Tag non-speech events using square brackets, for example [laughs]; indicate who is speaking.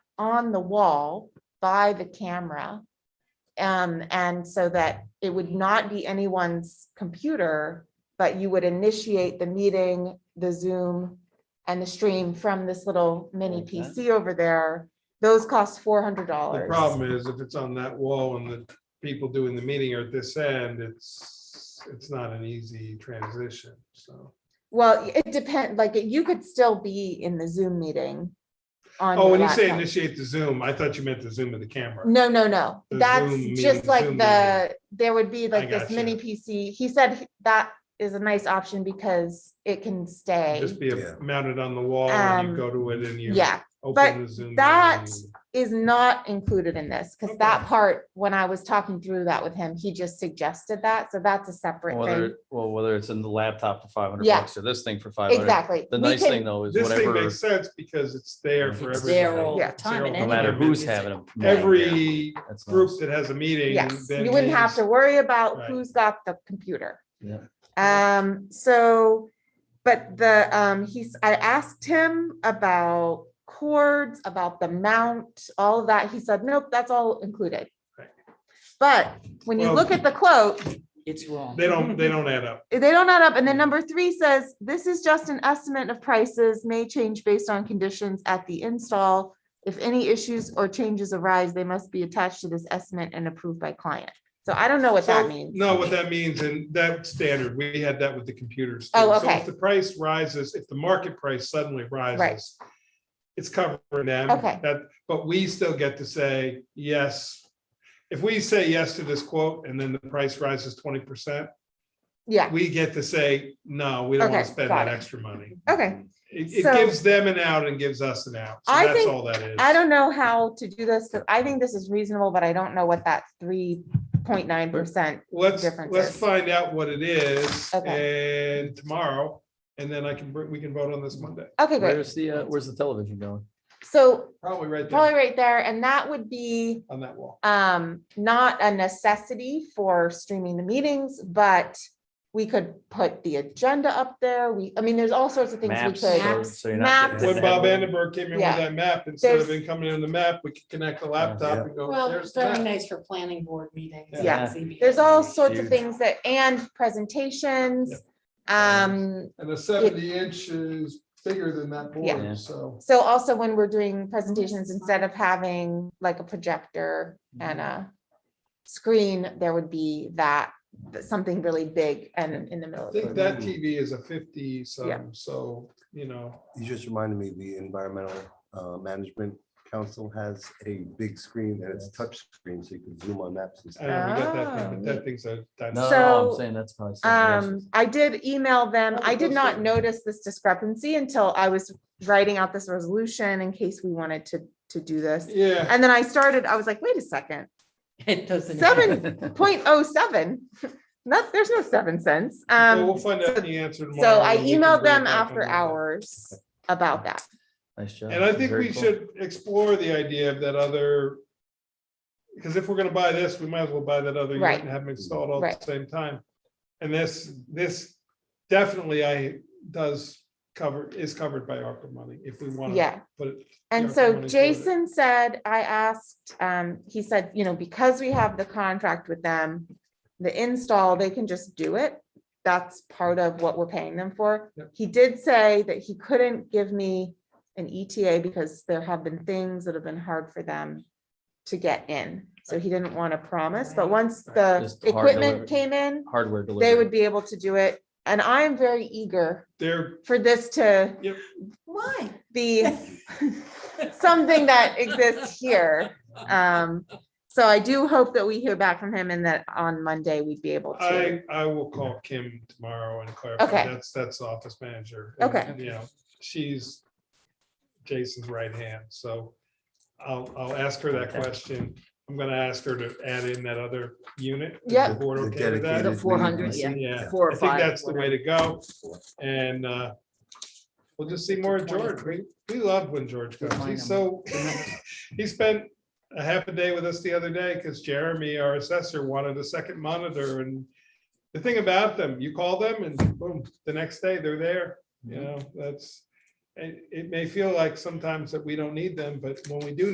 Speaker 1: on the wall by the camera. Um, and so that it would not be anyone's computer, but you would initiate the meeting, the Zoom and the stream from this little mini
Speaker 2: Okay.
Speaker 1: PC over there. Those cost four hundred
Speaker 3: The
Speaker 1: dollars.
Speaker 3: problem is if it's on that wall and the people doing the meeting are at this end, it's, it's not an easy transition, so.
Speaker 1: Well, it depend, like, you could still be in the Zoom meeting. on
Speaker 3: Oh,
Speaker 1: your
Speaker 3: when you say
Speaker 1: laptop.
Speaker 3: initiate the Zoom, I thought you meant the Zoom of the camera.
Speaker 1: No, no, no.
Speaker 3: The
Speaker 1: That's
Speaker 3: Zoom
Speaker 1: just
Speaker 3: meeting,
Speaker 1: like
Speaker 3: Zoom
Speaker 1: the, there would be like this
Speaker 3: gotcha.
Speaker 1: mini PC. He said he- that is a nice option because it can stay.
Speaker 3: Just be
Speaker 4: Yeah.
Speaker 3: mounted on the wall and
Speaker 1: Um,
Speaker 3: you go to it and you
Speaker 1: Yeah, but
Speaker 3: open the Zoom.
Speaker 1: that-
Speaker 3: meeting.
Speaker 1: is not included in this because
Speaker 3: Okay.
Speaker 1: that part, when I was talking through that with him, he just suggested that. So that's a separate thing.
Speaker 2: Whether, well, whether it's in the laptop for five hundred
Speaker 1: Yeah.
Speaker 2: bucks or this thing for five hundred.
Speaker 1: Exactly.
Speaker 2: The
Speaker 1: We
Speaker 2: nice
Speaker 1: can-
Speaker 2: thing though is
Speaker 3: This thing
Speaker 2: whatever,
Speaker 3: makes sense because it's there for
Speaker 2: It's
Speaker 3: everybody.
Speaker 5: there all
Speaker 1: Yeah.
Speaker 5: the time. and
Speaker 2: no
Speaker 3: No
Speaker 5: any-
Speaker 2: matter who's having. a meeting, yeah,
Speaker 3: Every
Speaker 2: that's nice.
Speaker 3: group that has a meeting.
Speaker 1: Yes,
Speaker 3: then
Speaker 1: you wouldn't have
Speaker 3: needs-
Speaker 1: to worry about
Speaker 3: Right.
Speaker 1: who's got the computer.
Speaker 2: Yeah.
Speaker 1: Um, so, but the, um, he's, I asked him about cords, about the mount, all of that. He said, nope, that's all included.
Speaker 3: Right.
Speaker 1: But when you
Speaker 3: Well-
Speaker 1: look at the quote,
Speaker 5: It's wrong.
Speaker 3: They
Speaker 1: [laughs]
Speaker 3: don't, they don't add up.
Speaker 1: they don't add up. And then number three says, this is just an estimate of prices may change based on conditions at the install. If any issues or changes arise, they must be attached to this estimate and approved by client. So I don't know what that
Speaker 3: So,
Speaker 1: means.
Speaker 3: No, what that means, and that standard, we had that with the computers. too.
Speaker 1: Oh,
Speaker 3: So
Speaker 1: okay.
Speaker 3: If the price rises, if the market price suddenly rises, it's covering them.
Speaker 1: Okay.
Speaker 3: That, but we still get to say, yes. If we say yes to this quote and then the price rises twenty percent,
Speaker 1: Yeah,
Speaker 3: we get to say, no, we don't want
Speaker 1: Okay,
Speaker 3: to spend
Speaker 1: got
Speaker 3: that
Speaker 1: it.
Speaker 3: extra money.
Speaker 1: okay.
Speaker 3: It, it
Speaker 1: So-
Speaker 3: gives them an out and gives us an out. So
Speaker 1: I
Speaker 3: that's
Speaker 1: think-
Speaker 3: all that is.
Speaker 1: I don't know how to do this, because I think this is reasonable, but I don't know what that three point nine percent.
Speaker 3: Let's, let's
Speaker 1: differences.
Speaker 3: find out what it is and tomorrow, and then I can, br- we can vote on this Monday.
Speaker 1: Okay, great.
Speaker 2: Where's the, uh, where's the television going?
Speaker 1: So
Speaker 3: Probably right
Speaker 1: probably
Speaker 3: there
Speaker 1: right there, and that would be
Speaker 3: on that wall.
Speaker 1: um not a necessity for streaming the meetings, but we could put the agenda up there. We, I mean, there's all sorts of things we could.
Speaker 2: Maps. so-
Speaker 5: Maps.
Speaker 2: so you're not
Speaker 1: Maps.
Speaker 2: getting
Speaker 3: When
Speaker 2: the
Speaker 3: Bob
Speaker 2: headwind.
Speaker 3: Vandenberg came in with
Speaker 1: Yeah.
Speaker 3: that map, instead of
Speaker 1: There's-
Speaker 3: him coming in the map, we could connect the laptop and go,
Speaker 5: Well,
Speaker 3: there's the
Speaker 5: very
Speaker 3: map.
Speaker 5: nice for planning board meetings.
Speaker 1: Yeah.
Speaker 5: and ZBA
Speaker 1: There's all
Speaker 5: meetings.
Speaker 1: sorts of
Speaker 2: Huge.
Speaker 1: things that, and presentations. Um,
Speaker 3: And the seventy inch is bigger than that
Speaker 2: Yeah.
Speaker 3: board, so.
Speaker 1: So also when we're doing presentations, instead of having like a projector and a screen, there would be that, that something really big and in the middle.
Speaker 3: I
Speaker 1: of
Speaker 3: think
Speaker 1: the
Speaker 3: that TV is a fifty
Speaker 1: Yeah.
Speaker 3: some, so, you know,
Speaker 4: You just reminded me, the Environmental uh, Management Council has a big screen and it's touchscreen, so you can zoom on maps and
Speaker 3: I don't know,
Speaker 4: stuff.
Speaker 3: we got that,
Speaker 1: Ah.
Speaker 3: thing, but that thing's a. that's-
Speaker 2: No, no, I'm
Speaker 1: So,
Speaker 2: saying that's probably. something else.
Speaker 1: Um, I did email them.
Speaker 3: Oh,
Speaker 1: I did not
Speaker 3: Okay.
Speaker 1: notice this discrepancy until I was writing out this resolution in case we wanted to, to do this.
Speaker 3: Yeah,
Speaker 1: And then I started, I was like, wait a second,
Speaker 5: [laughs] It doesn't.
Speaker 1: seven point oh seven, [laughs] not, there's no seven cents.
Speaker 3: well, we'll
Speaker 1: Um,
Speaker 3: find out the answer tomorrow.
Speaker 1: so I
Speaker 3: and we can
Speaker 1: emailed
Speaker 3: bring it
Speaker 1: them
Speaker 3: back on
Speaker 1: after
Speaker 3: Monday.
Speaker 1: hours about that.
Speaker 2: [laughs] Nice job.
Speaker 3: And I think
Speaker 2: Very
Speaker 3: we
Speaker 2: cool.
Speaker 3: should explore the idea of that other. Because if we're gonna buy this, we might as well buy that other
Speaker 1: Right.
Speaker 3: unit and have them installed all at
Speaker 1: Right.
Speaker 3: the same time. And this, this definitely I, does cover, is covered by ARPA money if we want
Speaker 1: Yeah.
Speaker 3: to put it.
Speaker 1: And so
Speaker 3: Yeah, someone included it.
Speaker 1: Jason said, I asked, um, he said, you know, because we have the contract with them, the install, they can just do it. That's part of what we're paying them for.
Speaker 3: Yep.
Speaker 1: He did say that he couldn't give me an ETA because there have been things that have been hard for them to get in. So he didn't want to promise, but once the
Speaker 2: Just hard
Speaker 1: equipment
Speaker 2: delivery.
Speaker 1: came in,
Speaker 2: Hardware delivery.
Speaker 1: they would be able to do it. And I am very eager
Speaker 3: There,
Speaker 1: for this to
Speaker 5: Why?
Speaker 1: be something that exists here. Um, so I do hope that we hear back from him and that on Monday we'd be able to.
Speaker 3: I, I will call Kim tomorrow and clarify.
Speaker 1: Okay.
Speaker 3: That's, that's the office manager. and,
Speaker 1: Okay.
Speaker 3: You know, she's Jason's right hand, so I'll, I'll ask her that
Speaker 2: Okay.
Speaker 3: question. I'm gonna ask her to add in that other unit. Is
Speaker 1: Yep.
Speaker 3: the board
Speaker 4: The
Speaker 3: okay with that?
Speaker 1: [laughs]
Speaker 4: dedicated
Speaker 5: 400,
Speaker 4: meeting.
Speaker 3: Yeah,
Speaker 5: Four or
Speaker 3: I think
Speaker 5: five,
Speaker 3: that's the way to go,
Speaker 4: Yeah.
Speaker 3: and uh, we'll just see more of George. We, we love when George comes.
Speaker 5: Define
Speaker 3: He's so, [laughs] he spent a half a day with us the other day because Jeremy, our assessor, wanted a second monitor and the thing about them, you call them and boom, the next day they're there,
Speaker 5: Mm-hmm.
Speaker 3: you know, that's, it, it may feel like sometimes that we don't need them, but when we do